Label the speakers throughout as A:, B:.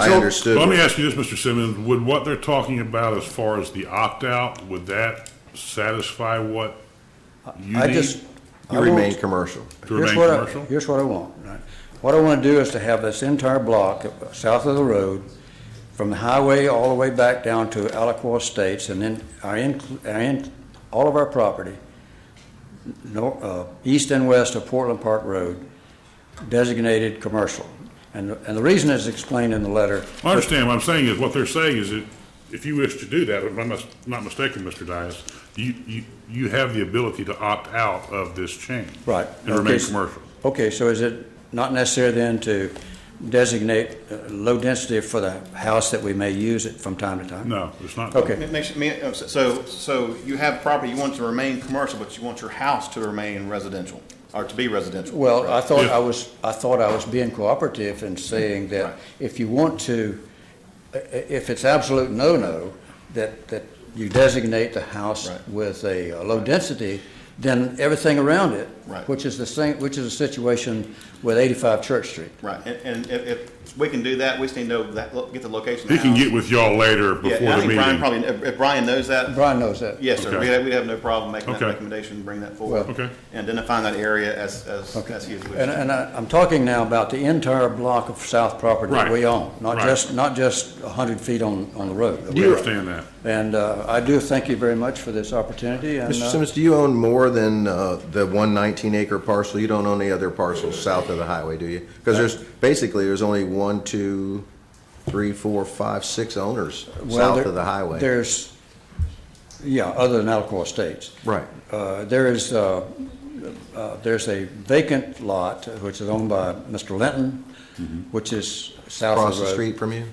A: I
B: So-
A: understood.
C: Let me
A: what-
C: ask you this, Mr. Simmons, would what they're talking about as far as the opt-out, would that satisfy what you
B: I
C: need
B: just,
C: to
B: I
A: You remain
B: want,
A: commercial.
C: remain
B: here's what I,
C: commercial?
B: here's what I want. What I want to do is to have this entire block uh, south of the road, from the highway all the way back down to Alacoa Estates, and then our, in- our, in- all of our property, nor, uh, east and west of Portland Park Road, designated commercial. And, and the reason is explained in the letter.
C: I understand, what I'm saying is, what they're saying is that if you wish to do that, if I'm not- not mistaken, Mr. Dias, you, you, you have the ability to opt out of this change.
B: Right.
C: And remain
B: Okay, s-
C: commercial.
B: Okay, so is it not necessary then to designate uh, low density for the house that we may use it from time to time?
C: No, it's not.
B: Okay.
D: It makes, me- uh, so, so you have property, you want it to remain commercial, but you want your house to remain residential, or to be residential.
B: Well, I thought
C: Yeah.
B: I was, I thought I was being cooperative in saying
D: Right.
B: that if you want to, i- i- if it's absolute no-no, that, that you designate the house
D: Right.
B: with a uh, low density, then everything around it,
D: Right.
B: which is the same, which is the situation with 85 Church Street.
D: Right, and, and if, if we can do that, we just need to know that, lo- get the location. of the
C: He can
D: house.
C: get with y'all later
D: Yeah,
C: before
D: and I
C: the
D: think Brian
C: meeting.
D: probably, if if Brian knows that,
B: Brian knows that.
D: yes, sir,
C: Okay.
D: we'd have, we'd have no problem making that
C: Okay.
D: recommendation, bring that forward.
B: Well-
C: Okay.
D: And identifying that area as, as, as he is.
B: And, and I, I'm talking now about the entire block of south property that
C: Right.
B: we own, not
C: Right.
B: just, not just hundred feet on, on the road. that we
C: We
B: own.
C: understand that.
B: And, uh, I do thank you very much for this opportunity and,
A: Mr.
B: uh,
A: Simmons, do you own more than uh, the one 19-acre parcel? You don't own any other parcels south of the highway, do you? Because there's, basically, there's only one, two, three, four, five, six owners
B: well,
A: south
B: there-
A: of the highway.
B: There's, yeah, other than Alcoa Estates.
A: Right.
B: Uh, there is, uh, uh, there's a vacant lot which is owned by Mr. Linton, which is south of
A: Mm-hmm. Across the
B: road.
A: street from you?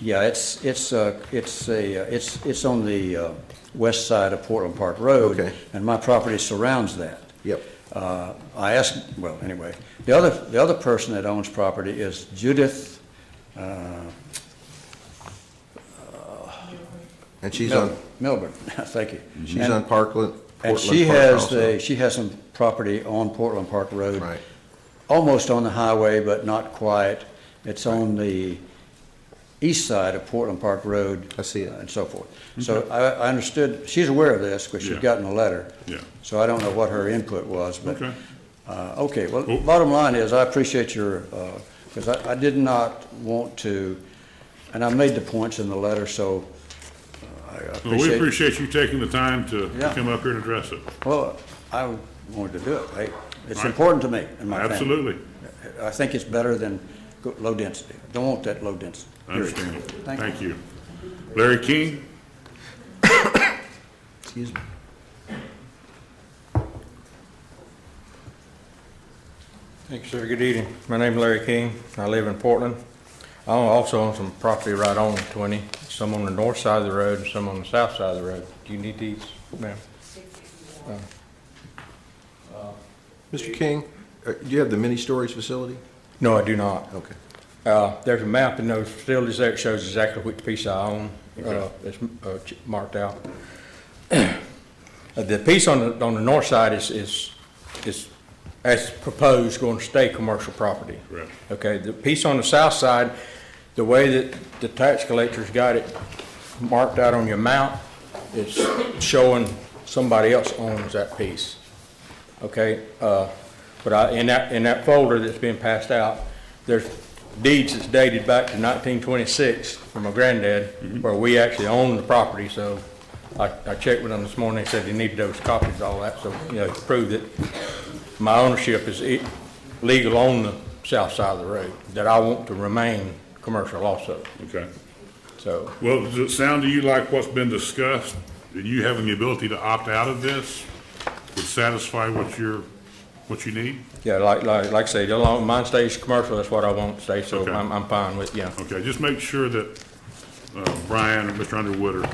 B: Yeah, it's, it's, uh, it's a, uh, it's, it's on the, uh, west side of Portland Park Road.
A: Okay.
B: And my property surrounds that.
A: Yep.
B: Uh, I asked, well, anyway, the other, the other person that owns property is Judith,
A: And she's
B: Mil-
A: on,
B: Milburn, thank you.
A: she's
B: And-
A: on Parkland,
B: And
A: Portland
B: she
A: Park
B: has
A: also.
B: the, she has some property on Portland Park Road.
A: Right.
B: Almost on the highway, but not quite. It's on the east side of Portland Park Road.
A: I see it. Mm-hmm.
B: uh, And so forth. So I, I understood, she's aware of this, because she's
C: Yeah.
B: gotten a letter.
C: Yeah.
B: So I don't know what her input was, but.
C: Okay.
B: Uh, okay, well,
C: Oh.
B: bottom line is, I appreciate your, because I, I did not want to, and I made the points in the letter, so uh, I
C: Well, We
B: appreciate.
C: appreciate you taking the time to to
B: Yeah.
C: come up here and address it.
B: Well, I wanted to do it, hey, it's
C: Right.
B: important to me and my family.
C: Absolutely.
B: I think it's better than go- low density. Don't want that low density. period.
C: Understandable.
B: Thank you.
C: Thank you. Larry King?
A: Excuse me.
E: Thank you, sir. Good evening. My name's Larry King. I live in Portland. I own- also own some property right on 20, some on the north side of the road and some on the south side of the road. Do you need these, ma'am?
A: Mr. King, uh, do you have the mini-storage facility?
E: No, I do not.
A: Okay.
E: Uh, There's a map in those facilities there that shows exactly which piece I own. Uh, It's uh, ch- marked out. Uh, The piece on the, on the north side is, is, is, as proposed, going to stay commercial property.
C: Correct.
E: Okay, the piece on the south side, the way that the tax collector's got it marked out on your map, it's showing somebody else owns that piece. Okay, uh, but I, in that, in that folder that's been passed out, there's deeds that's dated back to nineteen twenty-six from my granddad, where we actually own the property, so I, I checked with him this morning, he said he needed those copies, all that, so, you know, to prove that my ownership is e- legal on the south side of the road, that I want to remain commercial also,
C: Okay.
E: so.
C: Well, does it sound to you like what's been discussed, and you having the ability to opt out of this would satisfy what you're, what you need?
E: Yeah, like, like, like I say, the long, mine stays commercial, that's what I want to stay, so
C: Okay.
E: I'm, I'm fine with, yeah.
C: Okay, just make sure that uh, Brian or Mr. Underwood are,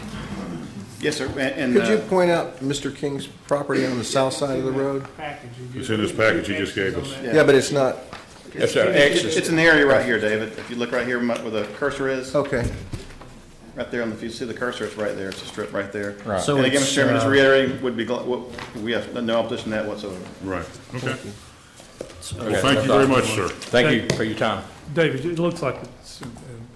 D: Yes, sir, and, and.
A: Could you
D: uh,
A: point out Mr. King's property on the south side of the road?
F: package you just-
C: It's in this package you just gave us.
F: There's two
A: Yeah, but it's not,
E: Yes, sir. X
D: It's
E: is-
D: it's an area right here, David, if you look right here where the cursor
B: Oh,
D: is,
A: okay.
D: right there, and if you see the cursor, it's right there, it's a strip right there.
E: Right.
G: So
D: And again,
G: it's,
D: Mr. Chairman, just
G: uh,
D: reiterating, would be, gl- what- we have no opposition to that whatsoever.
C: right, okay.
E: Okay,
C: Well, thank you very much, sir.
E: Thank you for your time.
F: David, it looks like it's, uh,